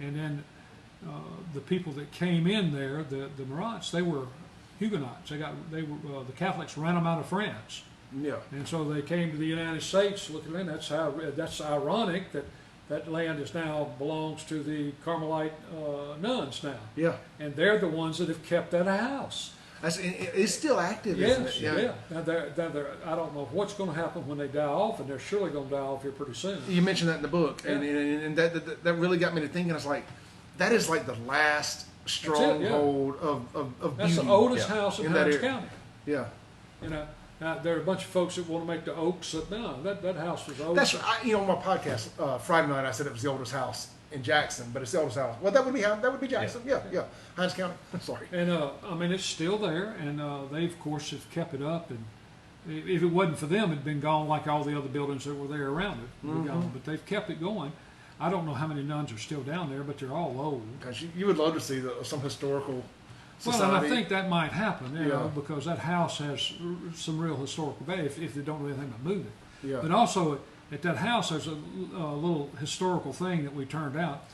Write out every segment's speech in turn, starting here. And then uh, the people that came in there, the the Marats, they were Huguenots. They got they were uh, the Catholics ran them out of France, Yeah. and so they came to the United States. Looking in, that's how that's ironic that that land is now belongs to the Carmelite uh, nuns now, Yeah. and they're the ones that have kept that house. That's, it, it- it's still active, isn't Yes, it? yeah. Now they're, now they're, I don't know what's going to happen when they die off, and they're surely going to die off here pretty soon. You mentioned that in the book, and, and, and that, that that really got me to thinking. I was like, that is like the last yeah. stronghold of, of, of That's the beauty oldest yeah, house in, in that Hines area. County. Yeah, You know, now there are a bunch of folks that want to make the Oaks, but no, that, that house was old. that's I, you know on my podcast uh, Friday night. I said it was the oldest house in Jackson, but it's the oldest house. Well, that would be Hin- that would be Jackson. Yeah, yeah, Hines County. Sorry. And uh, I mean, it's still there, and uh, they of course have kept it up. And i- if it wasn't for them, it'd been gone like all the other buildings that were there around it. were Mm-hmm. Gone, but they've kept it going. I don't know how many nuns are still down there, but they're all old. Because you, you would love to see the, some historical society. Well, and I think that might happen, you Yeah. know, because that house has r- some real historical value if, if they don't do anything but move it. yeah. But also at that house, there's a, a little historical thing that we turned out.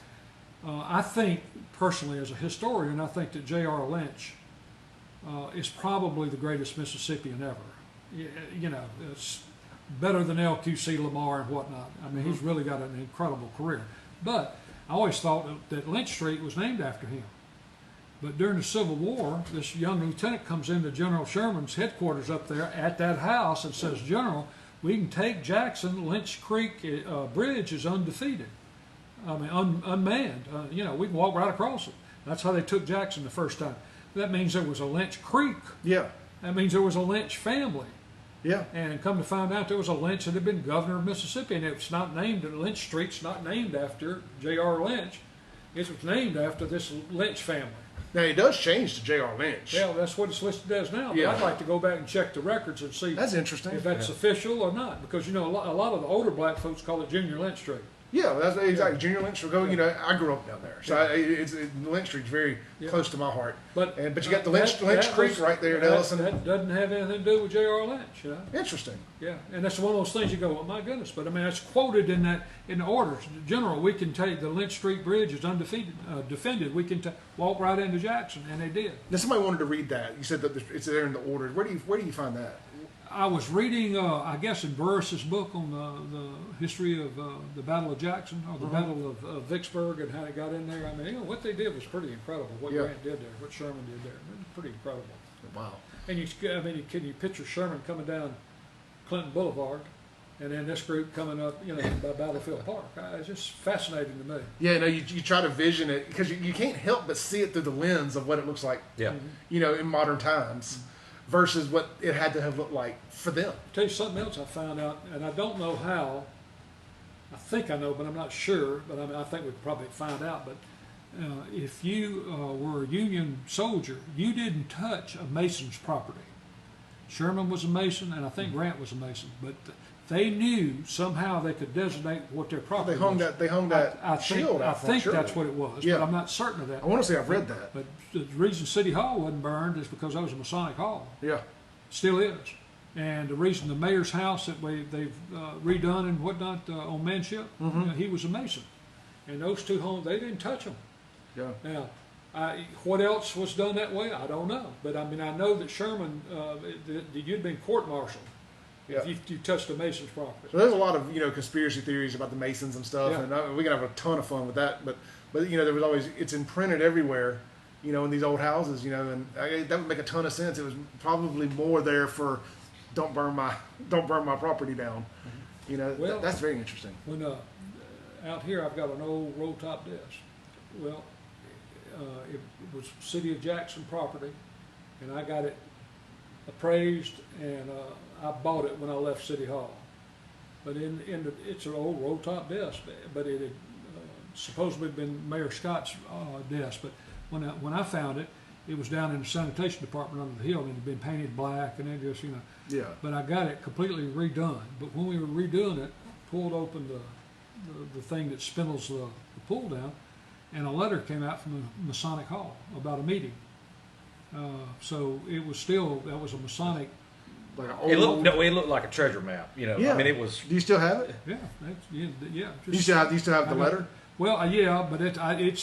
Uh, I think personally, as a historian, I think that J.R. Lynch uh, is probably the greatest Mississippian ever. You, you know, it's better than L.Q.C. Lamar and whatnot. I mean, he's really got an incredible career. But I always thought that- that Lynch Street was named after him. But during the Civil War, this young lieutenant comes into General Sherman's headquarters up there at that house and says, General, we can take Jackson. Lynch Creek uh, Bridge is undefeated. I mean, un- unmanned. Uh, you know, we can walk right across it. That's how they took Jackson the first time. That means there was a Lynch Creek. Yeah, That means there was a Lynch family. yeah. And come to find out, there was a Lynch that had been governor of Mississippi, and it's not named Lynch Street's not named after J.R. Lynch. It was named after this Lynch family. Now it does change to J.R. Lynch. Yeah, that's what it's listed as now. But Yeah. I'd like to go back and check the records and see That's interesting. if that's official or not, because you know a lot, a lot of the older black folks call it Junior Lynch Street. Yeah, that's exactly. Junior Lynch will go. You know, I grew up down there, so I, it- it's it, Lynch Street's very Yeah. close to my heart. But And but you got the Lynch, that- Lynch that Creek was- right there at that- Ellison. That doesn't have anything to do with J.R. Lynch, you know. Interesting. Yeah, and that's one of those things you go, well, my goodness. But I mean, that's quoted in that in the orders. General, we can take the Lynch Street Bridge is undefeated, uh, defended. We can ta walk right into Jackson, and they did. Now somebody wanted to read that. You said that the- it's there in the order. Where do you where do you find that? I was reading, uh, I guess, in Burris's book on the, the history of uh, the Battle of Jackson or the Battle of, of Vicksburg and how it got in there. I mean, you know, what they did was pretty incredible. What Yeah. Grant did there, what Sherman did there, it was pretty incredible. Wow. And you, I mean, you, can you picture Sherman coming down Clinton Boulevard, and then this group coming up, you know, by Battlefield Park? Uh, It's just fascinating to me. Yeah, no, you, you try to vision it because you, you can't help but see it through the lens of what it looks like, Yeah. you know, in modern times, versus what it had to have looked like for them. Tell you something else I found out, and I don't know how. I think I know, but I'm not sure. But I, mean, I think we'd probably find out. But uh, if you uh, were a Union soldier, you didn't touch a Mason's property. Sherman was a Mason, and I think Grant was a Mason. But they knew somehow they could designate what their property They hung was. that they hung I- that I, think, shield. I out front, think surely. that's what it was, Yeah. but I'm not certain of that. I want to say I've read that. But the reason City Hall wasn't burned is because that was a Masonic hall Yeah. still is. And the reason the mayor's house that we, they've uh, redone and whatnot uh, on Manship, uh, he was a mason. And those two homes, they didn't touch them. Yeah. Now, I, what else was done that way? I don't know. But I mean, I know that Sherman, uh, that that you'd been court-martialed Yeah. if you, you touched a mason's property. So there's a lot of you know conspiracy theories about the Masons and stuff, Yeah. and I, we can have a ton of fun with that. But but you know there was always it's imprinted everywhere, you know, in these old houses, you know, and I, that would make a ton of sense. It was probably more there for don't burn my don't burn my property down, you know. Well- th- that's very interesting. When uh, out here, I've got an old roll-top desk. Well, uh, it was City of Jackson property, and I got it appraised, and uh, I bought it when I left City Hall. But in, in the, it's an old roll-top desk, but it had uh, supposedly been Mayor Scott's uh, desk. But when I, when I found it, it was down in the sanitation department under the hill, and it had been painted black, and it just you know Yeah. but I got it completely redone. But when we were redoing it, pulled open the, the, the thing that spindles the, the pull down, and a letter came out from the Masonic Hall about a meeting. Uh, so it was still, that was a Masonic, Like an It looked no, it looked like a treasure map. You know, yeah. I mean, it was Do you still have it? yeah, that's, yeah, yeah. Do you still have, do you still have the I got- letter? Well, uh, yeah, but it, I, it's